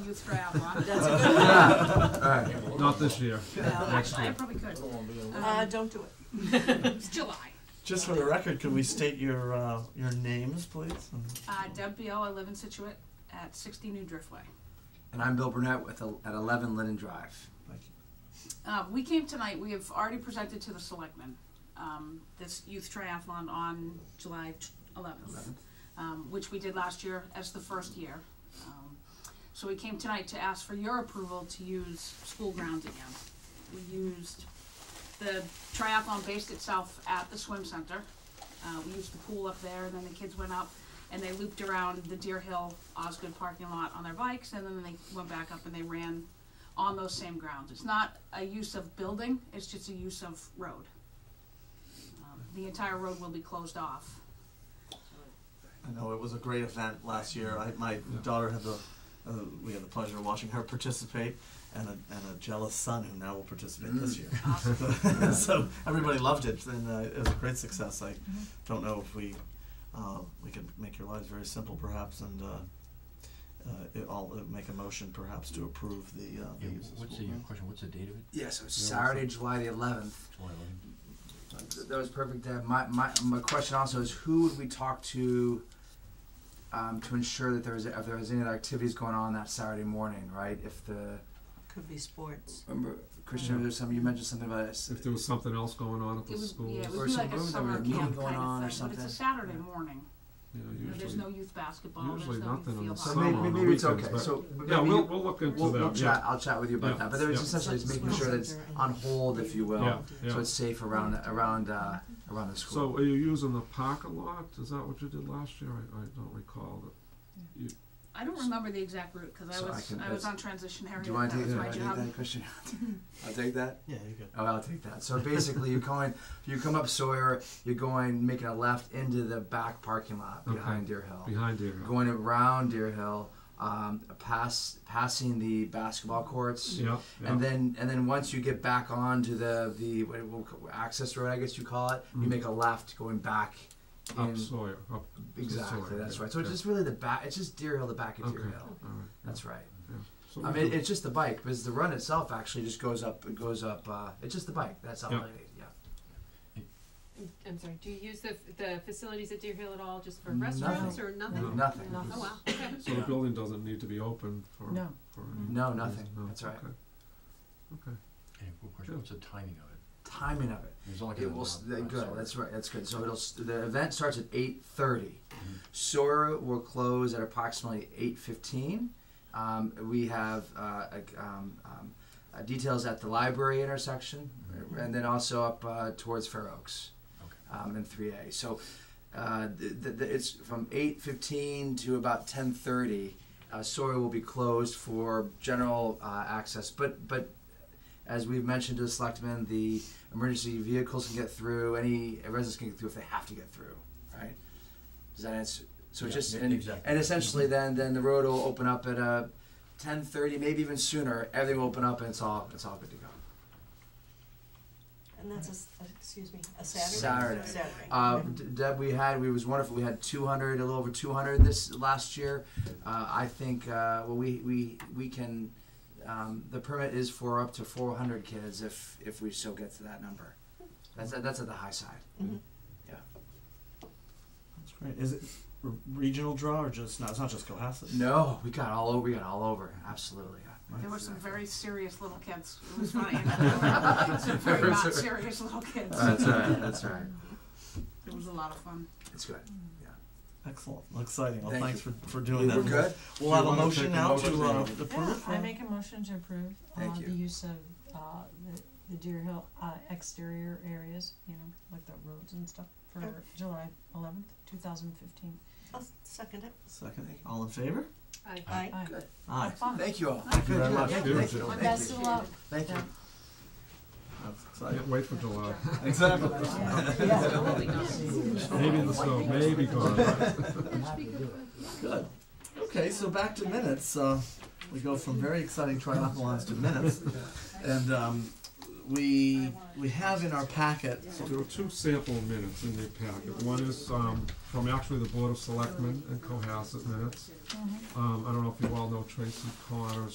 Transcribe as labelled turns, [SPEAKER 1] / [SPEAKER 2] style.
[SPEAKER 1] was for Avalon.
[SPEAKER 2] That's a good
[SPEAKER 3] Alright,
[SPEAKER 4] Not this year,
[SPEAKER 2] No,
[SPEAKER 4] next
[SPEAKER 1] I
[SPEAKER 4] year.
[SPEAKER 1] probably could. Um,
[SPEAKER 2] Uh, don't do it.
[SPEAKER 1] It's July.
[SPEAKER 5] Just for the record, could we state your, uh, your names, please? And-
[SPEAKER 1] Uh, Deb Beal, I live in Situate at sixty New Driftway.
[SPEAKER 3] and I'm Bill Burnett with, el- at eleven Linden Drive.
[SPEAKER 5] thank you.
[SPEAKER 1] Uh, we came tonight, we have already presented to the selectmen, um, this youth triathlon on July eleventh, um, which we did last year as the first year. Um, So we came tonight to ask for your approval to use school grounds again. We used, the triathlon based itself at the swim center. Uh, we used the pool up there, and then the kids went up, and they looped around the Deer Hill Osgood parking lot on their bikes, and then they went back up and they ran on those same grounds. It's not a use of building, it's just a use of road. Um, The entire road will be closed off.
[SPEAKER 5] I know it was a great event last year. I, my daughter had the, uh, we had the pleasure of watching her participate, and a, and a jealous son who now will participate this year.
[SPEAKER 1] Awesome.
[SPEAKER 5] so everybody loved it, and uh, it was a great success. I don't know if we uh, we could make your lives very simple, perhaps, and uh, uh, it, all uh, make a motion, perhaps, to approve the uh, the
[SPEAKER 6] Yeah,
[SPEAKER 5] use of
[SPEAKER 6] what's the,
[SPEAKER 5] school
[SPEAKER 6] your
[SPEAKER 5] ground.
[SPEAKER 6] question, what's the date of it?
[SPEAKER 3] Yeah, so it's Saturday, July the eleventh.
[SPEAKER 6] July eleventh?
[SPEAKER 3] That was perfect. Uh, my, my, my question also is who would we talk to um, to ensure that there is if there was any other activities going on that Saturday morning, right? If the
[SPEAKER 2] Could be sports.
[SPEAKER 3] remember, Christian, there's some you mentioned something about it.
[SPEAKER 4] If there was something else going on at
[SPEAKER 1] It
[SPEAKER 4] the
[SPEAKER 1] was,
[SPEAKER 4] schools,
[SPEAKER 1] yeah, it
[SPEAKER 3] Or
[SPEAKER 1] would be
[SPEAKER 3] some
[SPEAKER 1] like a
[SPEAKER 3] room, there was a
[SPEAKER 1] summer
[SPEAKER 3] meeting
[SPEAKER 1] camp
[SPEAKER 3] going on
[SPEAKER 1] kind
[SPEAKER 3] or
[SPEAKER 1] of thing, but it's
[SPEAKER 3] something.
[SPEAKER 1] a Saturday morning.
[SPEAKER 4] you know,
[SPEAKER 1] You know, There's
[SPEAKER 4] usually,
[SPEAKER 1] no youth basketball, there's no
[SPEAKER 4] usually
[SPEAKER 1] youth
[SPEAKER 4] nothing in the
[SPEAKER 1] field
[SPEAKER 3] so
[SPEAKER 1] hockey.
[SPEAKER 4] summer
[SPEAKER 3] maybe,
[SPEAKER 4] on the
[SPEAKER 3] maybe it's
[SPEAKER 4] weekends,
[SPEAKER 3] okay.
[SPEAKER 4] but-
[SPEAKER 3] So
[SPEAKER 4] Yeah,
[SPEAKER 3] maybe
[SPEAKER 4] we'll,
[SPEAKER 3] you-
[SPEAKER 4] we'll look into
[SPEAKER 3] We'll, we'll
[SPEAKER 4] that,
[SPEAKER 3] chat.
[SPEAKER 4] yeah.
[SPEAKER 3] I'll chat with you about
[SPEAKER 4] Yeah.
[SPEAKER 3] that. But there was
[SPEAKER 4] Yeah.
[SPEAKER 3] essentially just making sure that it's on hold, if you will,
[SPEAKER 4] Yeah, yeah.
[SPEAKER 3] so it's safe around around uh, around the school.
[SPEAKER 4] So are you using the parking lot? Is that what you did last year? I, I don't recall that.
[SPEAKER 1] I don't remember the exact route, cause I
[SPEAKER 3] So I
[SPEAKER 1] was,
[SPEAKER 3] can-
[SPEAKER 1] I was
[SPEAKER 3] that's-
[SPEAKER 1] on transition area,
[SPEAKER 3] Do
[SPEAKER 1] that
[SPEAKER 3] you want to take,
[SPEAKER 1] was
[SPEAKER 3] do you
[SPEAKER 1] my
[SPEAKER 3] wanna
[SPEAKER 1] job.
[SPEAKER 3] take that, Christian? I'll take that.
[SPEAKER 5] Yeah, you could.
[SPEAKER 3] Oh, I'll take that. So basically, you're going, you come up Sawyer, you're going, making a left into the back parking lot behind Deer Hill,
[SPEAKER 4] Behind there.
[SPEAKER 3] going around Deer Hill, um, pass, passing the basketball courts,
[SPEAKER 4] Yeah, yeah.
[SPEAKER 3] and then and then once you get back onto the the what, what, access road, I guess you call it, you
[SPEAKER 4] Mm.
[SPEAKER 3] make a left going back.
[SPEAKER 4] Up
[SPEAKER 3] in-
[SPEAKER 4] Sawyer, up, to
[SPEAKER 3] exactly,
[SPEAKER 4] Sawyer,
[SPEAKER 3] that's
[SPEAKER 4] yeah,
[SPEAKER 3] right. So it's
[SPEAKER 4] yeah.
[SPEAKER 3] just really the back. It's just Deer Hill, the back of Deer
[SPEAKER 4] Okay.
[SPEAKER 3] Hill.
[SPEAKER 4] all right. yeah.
[SPEAKER 3] That's right.
[SPEAKER 4] So
[SPEAKER 3] I
[SPEAKER 4] we
[SPEAKER 3] mean,
[SPEAKER 4] can-
[SPEAKER 3] it's just the bike, because the run itself actually just goes up. It goes up. Uh, it's just the bike. That's all
[SPEAKER 4] Yeah.
[SPEAKER 3] I need. Yeah.
[SPEAKER 7] I'm sorry, do you use the, the facilities at Deer Hill at all just for
[SPEAKER 3] Nothing.
[SPEAKER 7] restaurants or nothing?
[SPEAKER 4] No.
[SPEAKER 3] Nothing.
[SPEAKER 2] No.
[SPEAKER 7] Oh, wow, okay.
[SPEAKER 4] So the building doesn't need to be open for,
[SPEAKER 2] No.
[SPEAKER 4] for any.
[SPEAKER 3] No, nothing.
[SPEAKER 4] No,
[SPEAKER 3] That's right.
[SPEAKER 4] okay. Okay.
[SPEAKER 6] And a quick question,
[SPEAKER 4] Yeah.
[SPEAKER 6] what's the timing of it?
[SPEAKER 3] Timing of it.
[SPEAKER 6] It's only
[SPEAKER 3] It
[SPEAKER 6] gonna
[SPEAKER 3] will. s-
[SPEAKER 6] last-
[SPEAKER 3] th-
[SPEAKER 6] I'm
[SPEAKER 3] Good.
[SPEAKER 6] sorry.
[SPEAKER 3] That's right. That's good. So it'll. s- The event starts at eight thirty.
[SPEAKER 6] Mm-hmm.
[SPEAKER 3] Sora will close at approximately eight fifteen. Um, we have uh, a- um, um, uh, details at the library intersection,
[SPEAKER 6] Mhm.
[SPEAKER 3] and then also up uh, towards Fair Oaks,
[SPEAKER 6] Okay.
[SPEAKER 3] um, and three A. So. Uh, the, the, the, it's from 8.15 to about 10.30 uh, Sawyer will be closed for general uh, access but but as we've mentioned to the selectmen, the emergency vehicles can get through, any residents can get through if they have to get through, right? Does that answer, so
[SPEAKER 6] Yeah,
[SPEAKER 3] just,
[SPEAKER 6] e-
[SPEAKER 3] and,
[SPEAKER 6] exactly.
[SPEAKER 3] and essentially then, then the road will open up at, uh, ten thirty, maybe even sooner, everything will open up and it's all, it's all good to go.
[SPEAKER 2] And that's a, s- a- excuse me, a Saturday?
[SPEAKER 3] Saturday.
[SPEAKER 2] Saturday.
[SPEAKER 3] Uh, D- Deb, we had, we was wonderful. We had 200, a little over 200 this last year. Uh, I think, uh, well, we, we, we can, um, the permit is for up to 400 kids if, if we still get to that number. That's, that's at the high side.
[SPEAKER 5] That's great. Is it re- regional draw or just no? It's not just Cohasset.
[SPEAKER 3] No, we got all over, we got all over, absolutely. yeah.
[SPEAKER 1] There were some
[SPEAKER 3] Exactly.
[SPEAKER 1] very serious little kids. It was funny. Some very not serious little kids.
[SPEAKER 3] That's all right, that's all right.
[SPEAKER 1] It was a lot of fun.
[SPEAKER 3] It's good.
[SPEAKER 5] Excellent. Well, Exciting. Well,
[SPEAKER 3] Thank
[SPEAKER 5] thanks for, for
[SPEAKER 3] We're
[SPEAKER 5] doing that.
[SPEAKER 3] good?
[SPEAKER 5] We'll
[SPEAKER 4] Do you
[SPEAKER 5] have a
[SPEAKER 4] wanna
[SPEAKER 5] motion
[SPEAKER 4] take a
[SPEAKER 5] now
[SPEAKER 4] motion?
[SPEAKER 5] to uh, approve.
[SPEAKER 8] Yeah, I
[SPEAKER 5] uh,
[SPEAKER 8] make a motion to approve,
[SPEAKER 3] Um, Thank
[SPEAKER 8] uh,
[SPEAKER 3] you.
[SPEAKER 8] the use of, uh, the, the Deer Hill, uh, exterior areas, you know, like the roads and stuff
[SPEAKER 2] Okay.
[SPEAKER 3] Oh.
[SPEAKER 8] for July eleventh, two thousand fifteen.
[SPEAKER 2] I'll second it.
[SPEAKER 5] Second. All in favor?
[SPEAKER 7] Aye.
[SPEAKER 2] Aye.
[SPEAKER 5] Aye.
[SPEAKER 3] Thank you all.
[SPEAKER 5] Thank you very much.
[SPEAKER 3] Thank
[SPEAKER 4] Thank
[SPEAKER 3] you.
[SPEAKER 4] you.
[SPEAKER 3] Thank
[SPEAKER 8] Best
[SPEAKER 3] you.
[SPEAKER 8] of luck.
[SPEAKER 3] Thank you.
[SPEAKER 5] That's
[SPEAKER 4] Can't
[SPEAKER 5] exciting.
[SPEAKER 4] wait for July.
[SPEAKER 5] Exactly.
[SPEAKER 1] Absolutely not.
[SPEAKER 4] Maybe the snow, maybe gone.
[SPEAKER 5] Good. Okay, so back to minutes. Uh, we go from very exciting triathlons to minutes. And um, we, we have in our packet,
[SPEAKER 4] So there are two sample minutes in your packet. One is, um, from actually the Board of Selectmen and Cohasset minutes. Um, I don't know if you all know Tracy Connors.